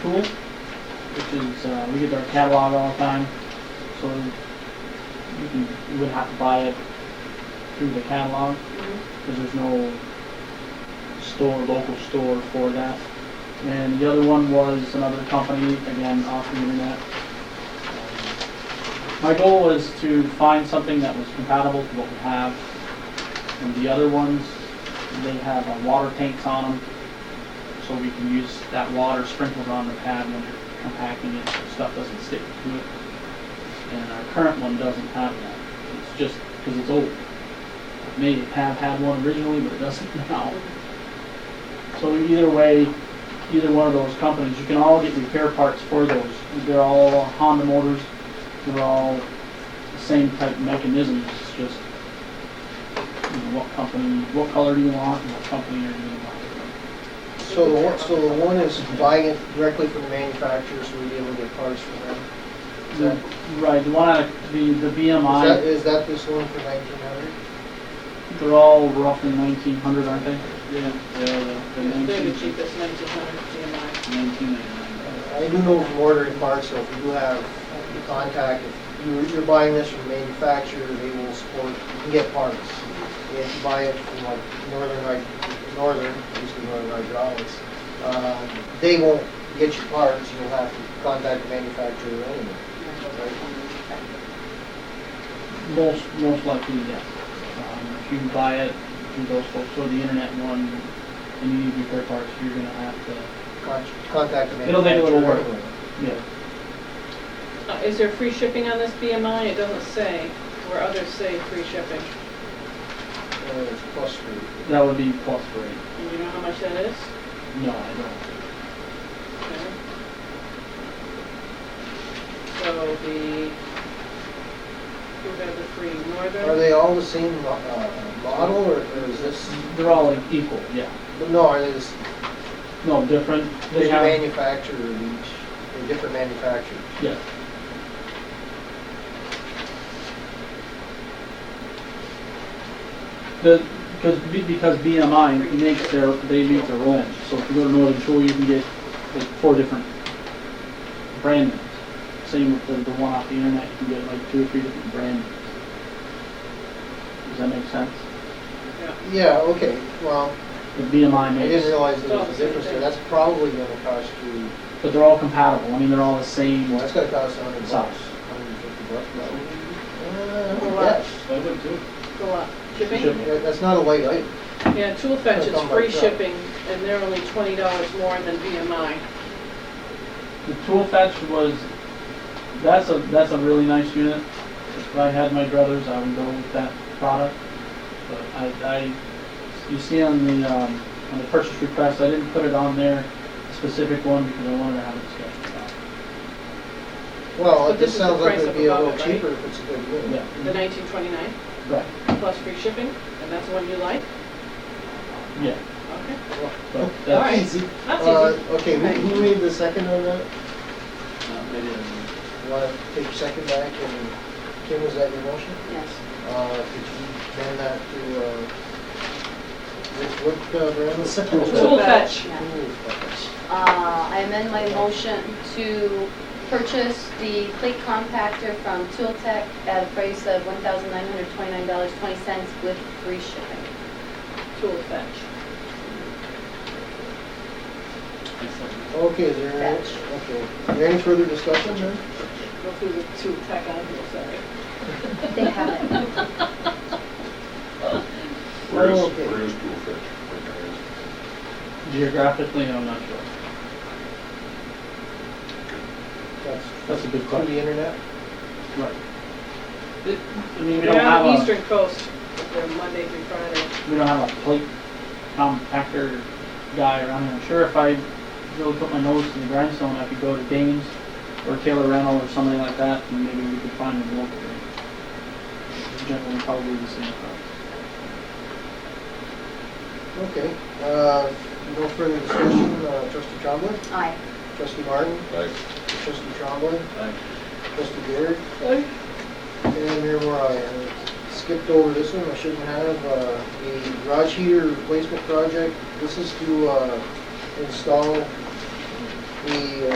tool, which is, uh, we get our catalog all the time, so you can, you wouldn't have to buy it through the catalog, because there's no store, local store for that. And the other one was another company, again, off the internet. My goal was to find something that was compatible to what we have. And the other ones, they have uh, water tanks on them, so we can use that water sprinkled on the pad when you're compacting it, so stuff doesn't stick to it. And our current one doesn't have that. It's just because it's old. It May have had one originally, but it doesn't now. So either way, either one of those companies, you can all get repair parts for those. They're all Honda motors, they're all the same type of mechanisms, it's just, you know, what company, what color do you want, and what company are you gonna want? So the one, so the one is buying it directly from the manufacturer, so we be able to get parts from them. Is that- is The- Right, the one, I- the, the that, BMI, is that this one for nineteen hundred? they're all roughly nineteen hundred, aren't they? Yeah, They're the cheapest, nineteen hundred nineteen ninety-nine. I do know from ordering parts, so if you do have the contact, if you're, you're buying this from the manufacturer, they will support, you can get parts. If you buy it from like Northern, Hy- Northern, used to be Northern Hydraulics, uh, they won't get your parts, you'll have to contact the manufacturer anyway. Most, most likely, yes. Um, If you buy it through those folks, or the internet one, and you need repair parts, you're gonna have to, Con- Contact the It'll make it a manufacturer little work. anyway. yeah, Uh Is there free shipping on this BMI? It doesn't say, where others say free shipping. Uh, it's plus three. that would be plus rate. And you know how much that is? No, I don't. Okay. So the, who got the free northern? Are they all the same mo- uh, model, or or is this, They're all like equal, yeah. no, are they just, No, different, they there's a have, manufacturer of each, they're different manufacturers? yes. The, because, because BMI makes their, they make their own, so if you go to Northern Tool, you can get like four different brand names. Same with the, the one off the internet, you can get like two or three different brand names. Does that make sense? Yeah. Yeah, okay, well, The BMI I didn't makes, realize there was a difference there, that's probably gonna cost you, but they're all compatible, I mean, they're all the same, well, that's gonna cost a hundred bucks. Sauce. Hundred and fifty bucks, probably. Well, Uh, yeah, I would too. Go up. Shipping? Shipping. that- that's not a light item. Yeah, Tool Fetch That's is on my free truck. shipping, and they're only twenty dollars more than BMI. The tool fetch was, that's a, that's a really nice unit. If I had my brothers, I would go with that product. But I, I, you see on the, um, on the purchase request, I didn't put it on there, specific one, because I wanted to have a discussion about it. Well, But it this just is the sounds like price it'd of be a above little it, right? cheaper if it's a good unit. The Yeah, nineteen twenty-nine right, plus free shipping, and that's the one you like? yeah. Okay, But all right, that's, that's easy. Uh, okay, who, Okay. who made the second on No, that? Uh, they didn't. You wanna take your second back, and Kim, was that your motion? Yes. Uh, could you turn that to, uh, which, what, uh, brand was Tool it? Tool Fetch, Yeah. Ooh, fuckers. Uh, I amend my motion to purchase the plate compactor from Tool Tech at a price of $1,929.20 with free shipping. Tool Fetch. Okay, is there, any- Fetch. okay, is there any further discussion then? Go through the Tool Tech on here, sorry. They have it. Where is, Oh, okay. where is Tool Fetch? Where geographically, I'm not sure. That's That's a good through question. the internet? Right. It- I mean, we don't They're on have the a, Eastern Coast, but they're Monday through Friday. we don't have a plate compactor guy around here. I'm sure if I really put my nose to the grindstone, I could go to Danes or Taylor Rental or something like that, and maybe we could find them locally. Generally, probably the same price. Okay, uh, no further discussion, uh, trustee Trombley, Aye. trustee Martin, is it? Like, trustee Trombley, Aye. trustee Garrett, and Mayor Morai. And I Skipped over this one, I shouldn't have, uh, the garage heater replacement project, this is to, uh, install the uh,